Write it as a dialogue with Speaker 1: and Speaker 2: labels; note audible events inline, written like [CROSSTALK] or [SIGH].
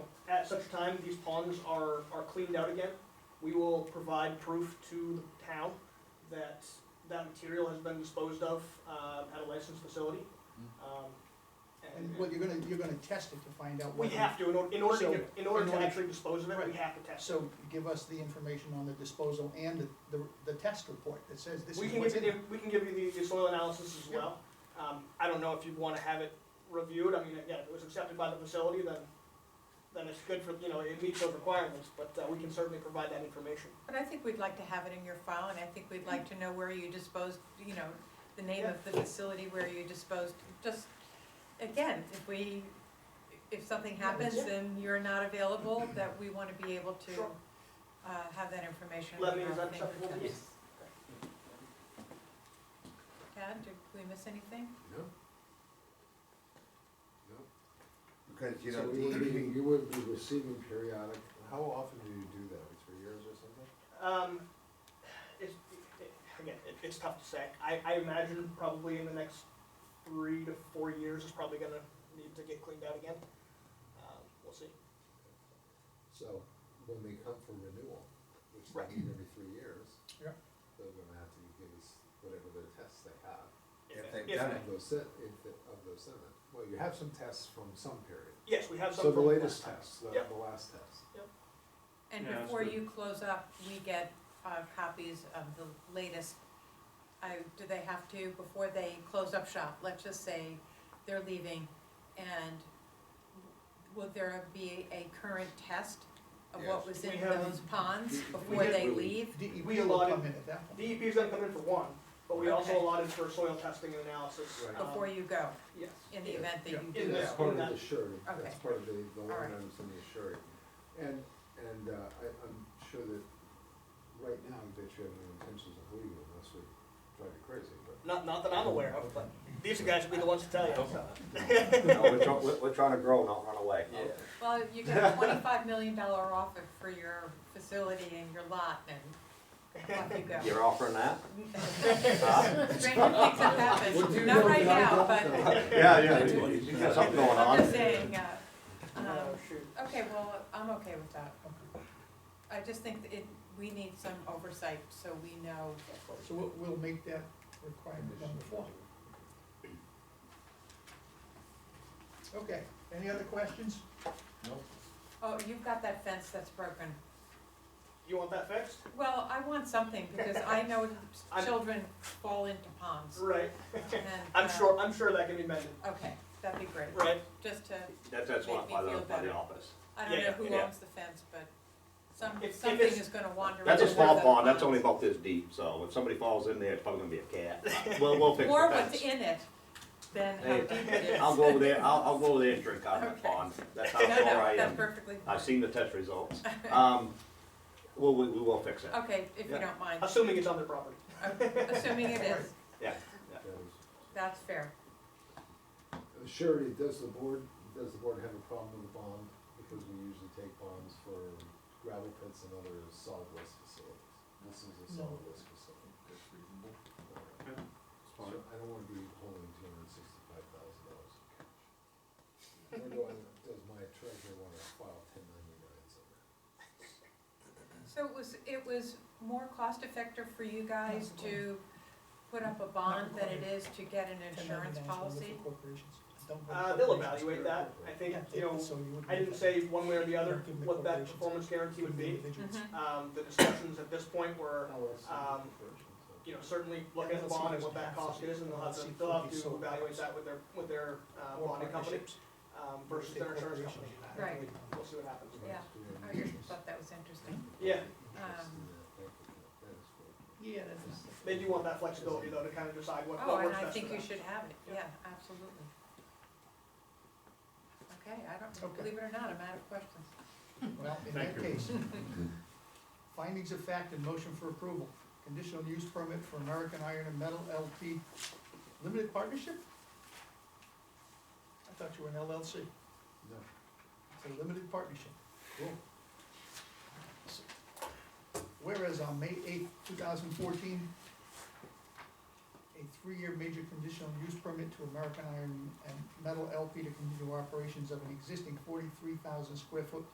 Speaker 1: such time these ponds are, are cleaned out again, we will provide proof to the town that that material has been disposed of, uh, at a licensed facility. Um,
Speaker 2: And what, you're gonna, you're gonna test it to find out
Speaker 1: We
Speaker 2: what.
Speaker 1: have to, in order, in order to,
Speaker 2: So,
Speaker 1: get- in order
Speaker 2: in
Speaker 1: to
Speaker 2: order-
Speaker 1: actually dispose of it, we
Speaker 2: Right.
Speaker 1: have to test it.
Speaker 2: So give us the information on the disposal and the, the, the test report that says this
Speaker 1: We
Speaker 2: is
Speaker 1: can
Speaker 2: what's
Speaker 1: give
Speaker 2: in
Speaker 1: you,
Speaker 2: it.
Speaker 1: we can give you the, the soil analysis as
Speaker 2: Yeah.
Speaker 1: well. Um, I don't know if you'd wanna have it reviewed, I mean, again, if it was accepted by the facility, then, then it's good for, you know, it meets those requirements, but, uh, we can certainly provide that information.
Speaker 3: But I think we'd like to have it in your file, and I think we'd like to know where you disposed, you know, the name of the facility where you disposed, just, again, if we, if something happens
Speaker 1: Yeah.
Speaker 3: and you're not available, that we wanna be able to,
Speaker 1: Sure.
Speaker 3: uh, have that information. in
Speaker 1: Lebanon is
Speaker 3: our
Speaker 1: unacceptable to you?
Speaker 3: fingertips. Tad, did we miss anything?
Speaker 4: No. No. Because, you
Speaker 5: So
Speaker 4: know,
Speaker 5: you would
Speaker 4: DEP
Speaker 5: be, you would be receiving periodic,
Speaker 4: how often do you do that, like three years or something?
Speaker 1: Um, it's, it- again, it, it's tough to say. I, I imagine probably in the next three to four years, it's probably gonna need to get cleaned out again. Um, We'll see.
Speaker 4: So, when they come for renewal, which
Speaker 1: Right.
Speaker 4: they need every three years.
Speaker 2: Yeah.
Speaker 4: They're gonna have to give us whatever the tests they have.
Speaker 1: If-
Speaker 4: they've
Speaker 1: if-
Speaker 4: done it. Those, se- if, the- of those seven, well, you have some tests from some period.
Speaker 1: Yes, we have some.
Speaker 4: So the
Speaker 1: from
Speaker 4: latest
Speaker 1: last time.
Speaker 4: tests, the,
Speaker 1: Yep.
Speaker 4: the last test.
Speaker 3: And
Speaker 6: Yeah, that's
Speaker 3: before
Speaker 6: good.
Speaker 3: you close up, we get, uh, copies of the latest, I, do they have to, before they close up shop, let's just say they're leaving, and will there be a current test of what
Speaker 4: Yes.
Speaker 3: was
Speaker 1: We
Speaker 3: in
Speaker 1: have-
Speaker 3: those ponds
Speaker 5: we
Speaker 3: before
Speaker 1: have-
Speaker 3: they
Speaker 5: Really?
Speaker 3: leave?
Speaker 2: DEP
Speaker 1: We
Speaker 2: E will
Speaker 1: allotted-
Speaker 2: come in at that point.
Speaker 1: DEP E is gonna come in for one, but we also
Speaker 3: Okay.
Speaker 1: allotted for soil testing and analysis.
Speaker 4: Right.
Speaker 1: um,
Speaker 3: Before you go,
Speaker 1: Yes.
Speaker 3: in the
Speaker 4: Yeah.
Speaker 3: event that
Speaker 2: Yeah.
Speaker 3: you
Speaker 1: In
Speaker 3: do.
Speaker 1: the-
Speaker 4: That's part of
Speaker 1: in
Speaker 4: the
Speaker 1: that-
Speaker 4: surety, that's
Speaker 3: Okay.
Speaker 4: part of the, the
Speaker 3: All
Speaker 4: line
Speaker 3: right.
Speaker 4: items in the surety. And, and uh, I, I'm sure that right now, I bet you have no intentions of leaving unless we drive you crazy, but.
Speaker 7: [LAUGHS]
Speaker 1: Not, not that I'm aware of, but these guys will be the ones to tell you,
Speaker 4: Oh.
Speaker 1: so.
Speaker 7: No, we're trying, we're, we're trying to grow, not run away.
Speaker 3: Well, you get a twenty-five million dollar offer for your facility and your lot, and off you go.
Speaker 7: You're
Speaker 4: [LAUGHS]
Speaker 7: offering that?
Speaker 3: Stranger things have
Speaker 4: What do
Speaker 3: happened, not
Speaker 4: you know
Speaker 3: right
Speaker 4: that I
Speaker 3: now,
Speaker 4: don't
Speaker 3: but
Speaker 4: know?
Speaker 7: Yeah, yeah, you you got something going
Speaker 3: I'm
Speaker 7: on.
Speaker 3: just saying, uh,
Speaker 1: Oh,
Speaker 3: um,
Speaker 1: shoot.
Speaker 3: okay, well, I'm okay with that. I just think that it, we need some oversight, so we know,
Speaker 2: So we'll, we'll make that requirement number four. Okay, any other questions?
Speaker 3: oh, you've got that fence that's broken.
Speaker 1: You want that fixed?
Speaker 3: Well, I want something, because I
Speaker 7: [LAUGHS]
Speaker 3: know
Speaker 1: I'm-
Speaker 3: children fall into ponds,
Speaker 1: Right.
Speaker 3: and.
Speaker 1: [LAUGHS] I'm
Speaker 3: uh,
Speaker 1: sure, I'm sure that can be mended,
Speaker 3: Okay, that'd be great,
Speaker 1: right?
Speaker 3: just to,
Speaker 7: That's, that's one by the, by the office.
Speaker 3: I don't
Speaker 1: Yeah,
Speaker 3: know
Speaker 1: yeah,
Speaker 3: who
Speaker 7: yeah.
Speaker 3: owns the fence, but some,
Speaker 1: If- if
Speaker 3: something
Speaker 1: it's-
Speaker 3: is gonna wander.
Speaker 7: That's a
Speaker 3: into
Speaker 7: small
Speaker 3: the
Speaker 7: pond, that's only about this deep, so if somebody falls in there, it's probably gonna be a
Speaker 3: [LAUGHS]
Speaker 7: cat. Well, we'll fix
Speaker 3: More
Speaker 7: the
Speaker 3: what's
Speaker 7: fence.
Speaker 3: in it than how
Speaker 7: Hey,
Speaker 3: deep it is.
Speaker 7: I'll go over there, I'll, I'll go over there and drink out of
Speaker 3: Okay.
Speaker 7: the pond. That's how
Speaker 3: No, no,
Speaker 7: sure I
Speaker 3: that's
Speaker 7: am.
Speaker 3: perfectly fine.
Speaker 7: I've seen the test
Speaker 3: [LAUGHS]
Speaker 7: results. Um, well, we, we will fix it.
Speaker 3: Okay, if you
Speaker 7: Yeah.
Speaker 3: don't mind,
Speaker 1: Assuming it's on their property.
Speaker 3: assuming it is,
Speaker 4: Because
Speaker 3: that's fair.
Speaker 4: the Surety, does the board, does the board have a problem with the bond? Because we usually take bonds for gravel pits and other solid waste facilities. This is a solid waste facility. That's reasonable. So I don't wanna be holding two hundred and sixty-five thousand dollars in cash.
Speaker 1: [LAUGHS]
Speaker 4: Nor do I, does my treasurer wanna file ten ninety-nine somewhere?
Speaker 3: So it was, it was more cost effective for you guys to put up a bond than it is to get an insurance
Speaker 2: $10.99 is
Speaker 3: policy?
Speaker 2: for corporations. Don't go to
Speaker 1: Uh, they'll
Speaker 2: corporations.
Speaker 1: evaluate that, I think,
Speaker 2: Yeah,
Speaker 1: you know,
Speaker 2: so you would
Speaker 1: I didn't
Speaker 2: make
Speaker 1: say one way or the other
Speaker 2: Give them the
Speaker 1: what that
Speaker 2: corporations.
Speaker 1: performance guarantee would be.
Speaker 2: Individuals.
Speaker 3: Mhm.
Speaker 1: Um, the discussions at this point were, Um, you know, certainly looking at the bond and what that cost is, and they'll have to, they'll have to evaluate that with their, with their, uh,
Speaker 2: Or
Speaker 1: bonding company,
Speaker 2: partnerships.
Speaker 1: um, versus their insurance company.
Speaker 3: Right.
Speaker 1: We'll see what happens.
Speaker 3: Yeah. I just Oh, thought that was interesting.
Speaker 1: Yeah. Um,
Speaker 3: Um,
Speaker 2: Yeah, that's.
Speaker 1: They do want that flexibility, though, to kind of decide what,
Speaker 3: Oh,
Speaker 1: what
Speaker 3: and
Speaker 1: works
Speaker 3: I
Speaker 1: best for
Speaker 3: think you
Speaker 1: them.
Speaker 3: should have it, yeah, absolutely. Okay, I don't,
Speaker 2: Okay.
Speaker 3: believe it or not, I'm out of questions.
Speaker 2: Well, in
Speaker 6: Thank
Speaker 2: that
Speaker 6: you.
Speaker 2: case, findings of fact and motion for approval. Conditional use permit for American Iron and Metal LP Limited Partnership? I thought you were an LLC.
Speaker 4: No.
Speaker 2: It's a limited partnership.
Speaker 4: Cool.
Speaker 2: Whereas on May eighth, two thousand fourteen, a three-year major conditional use permit to American Iron and Metal LP to continue operations of an existing forty-three thousand square foot